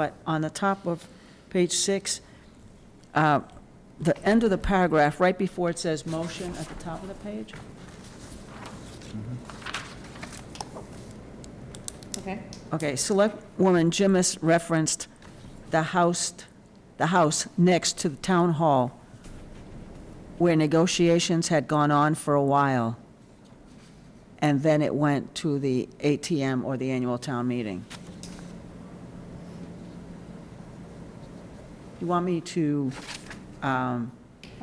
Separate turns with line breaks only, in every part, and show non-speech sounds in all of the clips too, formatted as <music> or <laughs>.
But on the top of page six, uh, the end of the paragraph, right before it says motion at the top of the page,
Okay.
okay, Selectwoman Jimis referenced the house, the house next to the town hall where negotiations had gone on for a while. And then it went to the ATM or the annual town meeting. You want me to, um,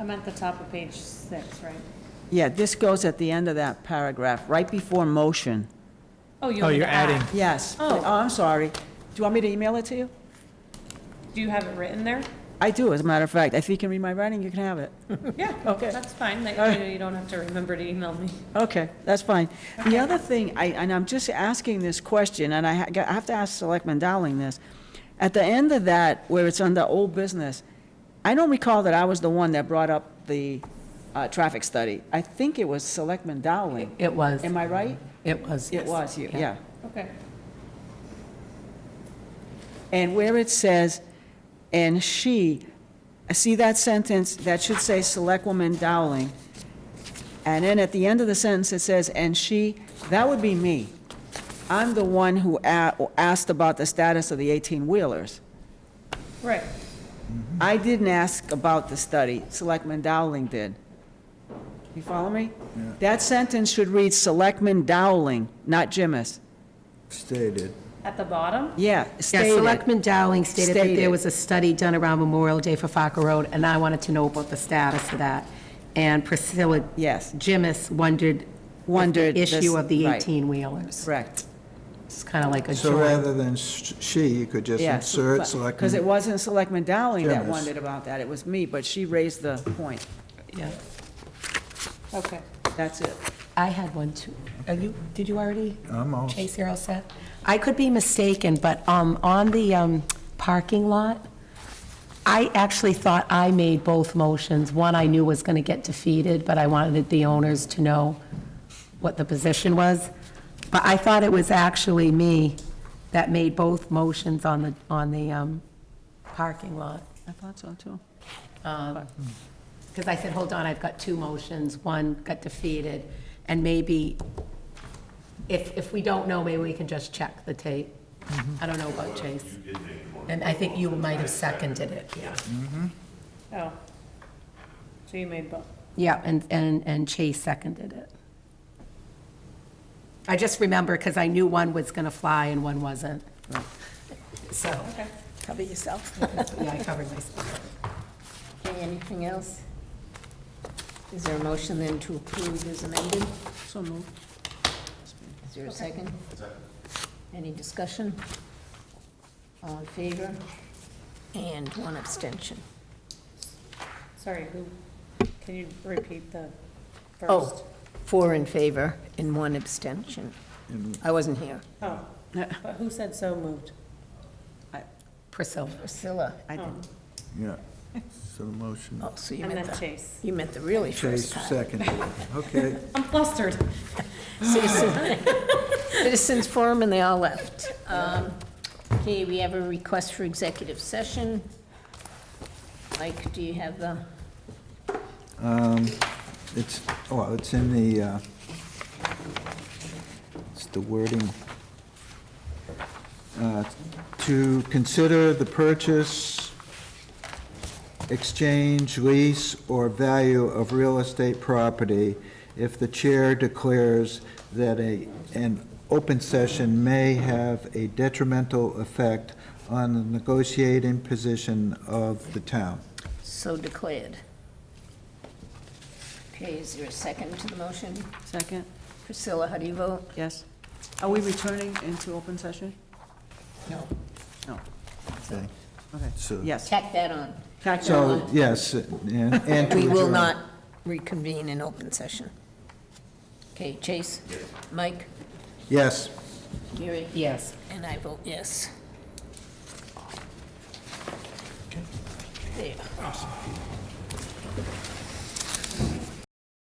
I'm at the top of page six, right?
Yeah, this goes at the end of that paragraph, right before motion.
Oh, you
Oh,
want me
you're
to add?
adding.
Yes.
Oh.
I'm sorry. Do you want me to email it to you?
Do you have it written
<laughs>
there?
I do, as a matter of fact. If you can read my writing, you can have it.
Yeah.
Okay.
That's fine, that,
All right.
you know, you don't have to remember to email me.
Okay, that's fine. The
Okay.
other thing, I, and I'm just asking this question, and I ha- I have to ask Selectman Dowling this. At the end of that, where it's under old business, I don't recall that I was the one that brought up the uh, traffic study. I think it was Selectman Dowling.
It was,
Am I right?
it was.
It was you, yeah.
Okay.
And where it says, "and she," I see that sentence, that should say Selectwoman Dowling. And then at the end of the sentence, it says, "and she," that would be me. I'm the one who a- asked about the status of the 18-wheelers.
Right.
I didn't ask about the study, Selectman Dowling did. You follow me? That sentence should read Selectman Dowling, not Jimis.
stated.
At the bottom?
Yeah,
Yeah,
stated.
Selectman Dowling stated that
Stated.
there was a study done around Memorial Day for Fokker Road, and I wanted to know about the status of that. And Priscilla
Yes,
Jimis wondered. if the
Wondered this-
Issue of the
right.
18-wheelers.
correct.
It's kind of like a
So
joint.
rather than s- she, you could just
Yes,
insert select.
Because it wasn't Selectman Dowling that
Jimenez.
wondered about that, it was me, but she raised the point.
Yeah.
Okay.
That's it.
I had one too. Are you, did you already?
I'm all-
Chase, you're all set? I could be mistaken, but um, on the um, parking lot, I actually thought I made both motions. One I knew was going to get defeated, but I wanted the owners to know what the position was. But I thought it was actually me that made both motions on the, on the um, parking lot.
I thought so, too.
Because I said, hold on, I've got two motions, one got defeated, and maybe, if, if we don't know, maybe we can just check the tape. I don't know about Chase. And I think you might have seconded it, yeah.
Oh. So you made both.
Yeah, and, and, and Chase seconded it. I just remember, because I knew one was going to fly and one wasn't. So. Cover yourself. Yeah, I covered myself.
Okay, anything else? Is there a motion then to approve as amended?
So moved.
Is there a second? Any discussion? All in favor? And one abstention.
Sorry, who, can you repeat the first?
Oh, four in favor and one abstention. I wasn't here.
Oh. But who said so moved?
Priscilla.
Priscilla.
I didn't.
Yeah. So the motion,
Oh, so you
And
meant
then
the,
Chase.
you meant the really
Chase
first part.
seconded. Okay,
I'm flustered.
Citizen- <laughs> Citizens Forum, and they all left. Um, Okay, we have a request for executive session. Mike, do you have the?
it's, well, it's in the, uh, it's the wording. Uh, To consider the purchase, exchange, lease, or value of real estate property if the chair declares that a, an open session may have a detrimental effect on the negotiating position of the town.
So declared. Okay, is there a second to the motion?
Second,
Priscilla, how do you vote?
yes. Are we returning into open session?
No.
No,
Okay.
okay.
So-
Yes.
Tack that on.
Tack that
So,
on.
yes, and and to
We will
adjourn.
not reconvene in open session. Okay, Chase? Mike?
Yes.
Gary?
Yes.
And I vote yes. There.